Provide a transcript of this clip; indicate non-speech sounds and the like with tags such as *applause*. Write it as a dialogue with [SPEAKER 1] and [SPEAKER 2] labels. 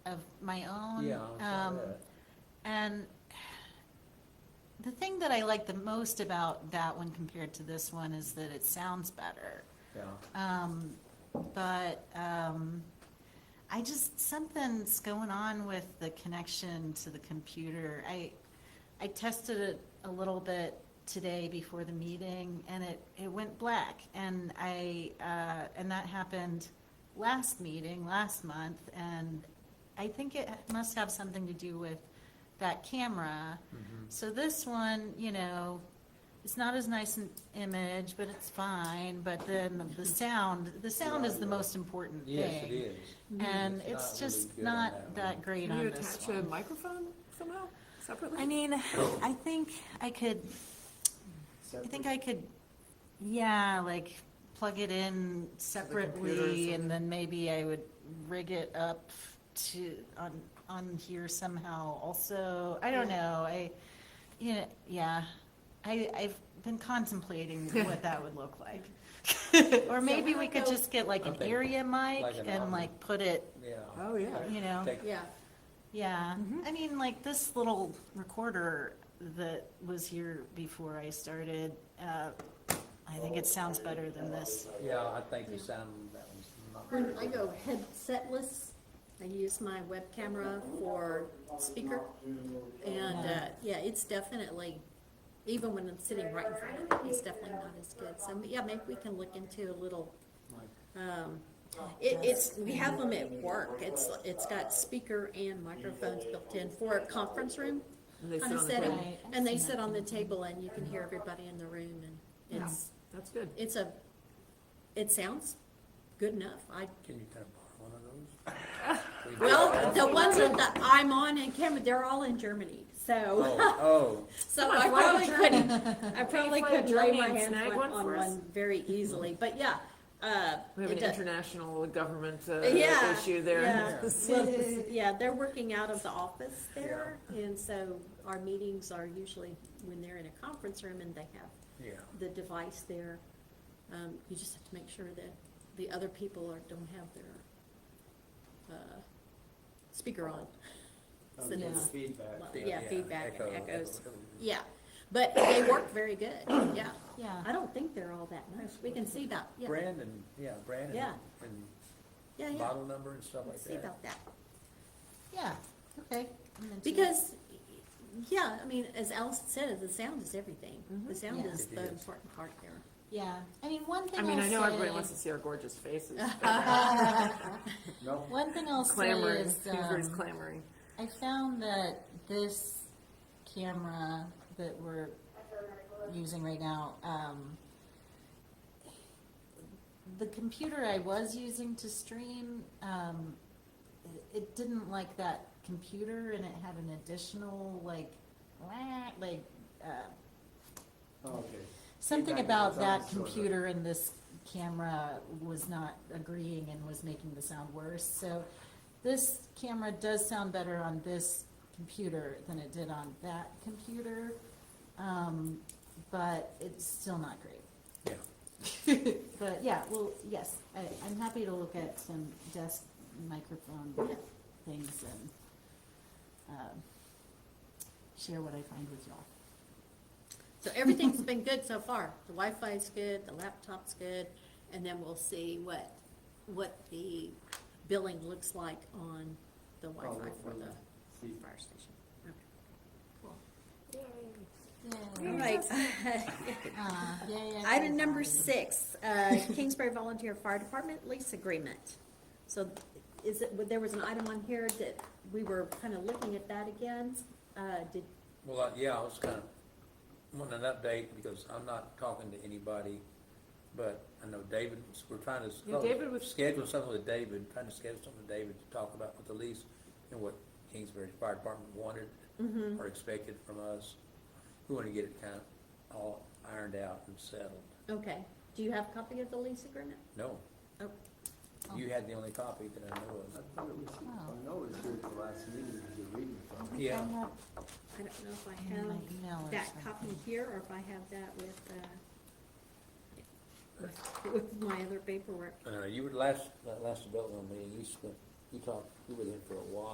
[SPEAKER 1] of my own.
[SPEAKER 2] Yeah, I
[SPEAKER 1] um,
[SPEAKER 2] saw that.
[SPEAKER 1] And the thing that I like the most about that one compared to this one is that it sounds better.
[SPEAKER 2] Yeah,
[SPEAKER 1] Um, but, um, I just, something's going on with the connection to the computer. I, I tested it a little bit today before the meeting and it, it went black. And I, uh, and that happened last meeting, last month. And I think it must have something to do with that camera.
[SPEAKER 3] Mm-hmm.
[SPEAKER 1] So this one, you know, it's not as nice an image, but it's fine. But then the sound, the sound is the most important thing.
[SPEAKER 2] yes, it is.
[SPEAKER 1] And it's
[SPEAKER 2] It's not really
[SPEAKER 1] just
[SPEAKER 2] good on
[SPEAKER 1] not
[SPEAKER 2] that
[SPEAKER 1] that
[SPEAKER 2] one.
[SPEAKER 1] great
[SPEAKER 4] Can you
[SPEAKER 1] on
[SPEAKER 4] attach
[SPEAKER 1] this
[SPEAKER 4] a
[SPEAKER 1] one.
[SPEAKER 4] microphone somehow separately?
[SPEAKER 1] I mean, I think I could, I think I could, yeah, like plug it in separately and then maybe I would rig it up to, on, on here somehow also. I don't know. I, you know, yeah. I, I've been contemplating what that would look like. Or maybe
[SPEAKER 3] I
[SPEAKER 1] we
[SPEAKER 3] don't
[SPEAKER 1] could
[SPEAKER 3] know-
[SPEAKER 1] just get like
[SPEAKER 2] I'm
[SPEAKER 1] an
[SPEAKER 2] thinking
[SPEAKER 1] area mic
[SPEAKER 2] like an
[SPEAKER 1] and
[SPEAKER 2] arm.
[SPEAKER 1] like put it
[SPEAKER 2] Yeah.
[SPEAKER 4] Oh, yeah.
[SPEAKER 1] You know.
[SPEAKER 2] Take-
[SPEAKER 3] Yeah,
[SPEAKER 1] Yeah, I mean, like this little recorder that was here before I started, uh, I think it sounds better than this.
[SPEAKER 2] Yeah, I think the sound, that one's not.
[SPEAKER 3] when
[SPEAKER 2] very
[SPEAKER 3] I
[SPEAKER 2] good.
[SPEAKER 3] go headsetless, I use my web camera for speaker. And, uh, yeah, it's definitely, even when I'm sitting right in front of it, it's definitely not as good. So, yeah, maybe we can look into a little, um, it, it's, we have them at work. It's, it's got speaker and microphones built in for a conference room
[SPEAKER 4] And they sit
[SPEAKER 3] kind of
[SPEAKER 4] on the
[SPEAKER 3] setting.
[SPEAKER 4] table.
[SPEAKER 1] Right.
[SPEAKER 3] And they sit on the table and you can hear everybody in the room and it's,
[SPEAKER 4] That's good.
[SPEAKER 3] it's a, it sounds good enough. I,
[SPEAKER 2] Can you kind of borrow one of
[SPEAKER 3] *laughs*
[SPEAKER 2] those?
[SPEAKER 3] well, the ones that that I'm on in camera, they're all in Germany, so,
[SPEAKER 2] Oh,
[SPEAKER 4] Come
[SPEAKER 3] so
[SPEAKER 4] on,
[SPEAKER 3] I
[SPEAKER 4] fly to
[SPEAKER 3] probably
[SPEAKER 4] Germany. *laughs*
[SPEAKER 3] couldn't, I probably
[SPEAKER 4] fly to
[SPEAKER 3] couldn't lay
[SPEAKER 4] Germany
[SPEAKER 3] my
[SPEAKER 4] and
[SPEAKER 3] hands
[SPEAKER 4] snag
[SPEAKER 3] on
[SPEAKER 4] one
[SPEAKER 3] on
[SPEAKER 4] for us?
[SPEAKER 3] one very easily, but yeah, uh.
[SPEAKER 4] We have
[SPEAKER 3] it
[SPEAKER 4] an
[SPEAKER 3] does-
[SPEAKER 4] international government uh,
[SPEAKER 3] Yeah,
[SPEAKER 4] issue
[SPEAKER 3] yeah.
[SPEAKER 4] *laughs* there.
[SPEAKER 3] Well, Yeah, they're working out of the office there, and so our meetings are usually when they're in a conference room and they have
[SPEAKER 2] oh, yeah.
[SPEAKER 3] the device there. Um, you just have to make sure that the other people are, don't have their, uh, speaker on.
[SPEAKER 2] Oh,
[SPEAKER 3] So that's-
[SPEAKER 5] Feedback.
[SPEAKER 3] Yeah, feedback and
[SPEAKER 2] echo,
[SPEAKER 3] echoes.
[SPEAKER 2] echo, echo.
[SPEAKER 3] Yeah, but they work very good, yeah.
[SPEAKER 1] Yeah.
[SPEAKER 3] I don't think they're all that nice, we can see about, yeah,
[SPEAKER 2] Brandon, yeah, Brandon.
[SPEAKER 3] Yeah.
[SPEAKER 2] And
[SPEAKER 3] yeah, yeah,
[SPEAKER 2] model number and stuff
[SPEAKER 3] We'll
[SPEAKER 2] like
[SPEAKER 3] see
[SPEAKER 2] that.
[SPEAKER 3] about that.
[SPEAKER 1] Yeah, okay. I'm into it.
[SPEAKER 3] Because, yeah, I mean, as Allison said, the sound is everything, the sound
[SPEAKER 1] Yeah.
[SPEAKER 3] is
[SPEAKER 2] It
[SPEAKER 3] the
[SPEAKER 2] is.
[SPEAKER 3] important part there.
[SPEAKER 1] Yeah, I mean, one thing
[SPEAKER 4] I
[SPEAKER 1] I'll
[SPEAKER 4] mean, I know everybody
[SPEAKER 1] say-
[SPEAKER 4] wants to see our gorgeous faces.
[SPEAKER 3] *laughs*
[SPEAKER 4] but
[SPEAKER 5] No,
[SPEAKER 1] *laughs* One thing I'll say
[SPEAKER 4] Clamoring,
[SPEAKER 1] is,
[SPEAKER 4] Hoover's
[SPEAKER 1] um,
[SPEAKER 4] clamoring.
[SPEAKER 1] I found that this camera that we're using right now, um, the computer I was using to stream, um, it- it didn't like that computer and it had an additional like, wah, like, uh,
[SPEAKER 5] okay.
[SPEAKER 1] something
[SPEAKER 5] Feedback
[SPEAKER 1] about
[SPEAKER 5] is
[SPEAKER 1] that
[SPEAKER 5] always sort of-
[SPEAKER 1] computer and this camera was not agreeing and was making the sound worse. So this camera does sound better on this computer than it did on that computer. Um, but it's still not great.
[SPEAKER 2] Yeah,
[SPEAKER 1] *laughs* But yeah, well, yes, I, I'm happy to look at some desk microphone things and, um, share what I find with y'all.
[SPEAKER 3] So everything's been good so far. The Wi-Fi's good, the laptop's good, and then we'll see what, what the billing looks like on the Wi-Fi for the
[SPEAKER 5] See.
[SPEAKER 3] fire station. Okay.
[SPEAKER 1] Yeah.
[SPEAKER 3] All right.
[SPEAKER 1] Uh, yeah, yeah.
[SPEAKER 3] *laughs* Item
[SPEAKER 1] yeah.
[SPEAKER 3] number six, uh, Kingsbury Volunteer Fire Department lease agreement. So is it, there was an item on here that we were kind of looking at that again. Uh, Did,
[SPEAKER 2] well, I- yeah, I was kind of wanting an update because I'm not talking to anybody, but I know David, we're trying to.
[SPEAKER 4] Yeah, David was-
[SPEAKER 2] Schedule something with David, trying to schedule something with David to talk about with the lease and what Kingsbury Fire Department wanted
[SPEAKER 4] Mm-hmm.
[SPEAKER 2] or expected from us. We want to get it kind of all ironed out and settled.
[SPEAKER 3] okay, do you have a copy of the lease agreement?
[SPEAKER 2] No,
[SPEAKER 3] Oh,
[SPEAKER 2] you had the only copy that I know
[SPEAKER 5] I
[SPEAKER 2] of.
[SPEAKER 5] thought it was, I know it was here at the last meeting, you were reading from it.
[SPEAKER 2] Yeah.
[SPEAKER 1] I have
[SPEAKER 3] I don't know if I
[SPEAKER 1] in my
[SPEAKER 3] have.
[SPEAKER 1] email or
[SPEAKER 3] that copy
[SPEAKER 1] something.
[SPEAKER 3] here, or if I have that with, uh, with my other paperwork.
[SPEAKER 2] Uh, you were last, that last development meeting, you spent, you talked, you were there for a while.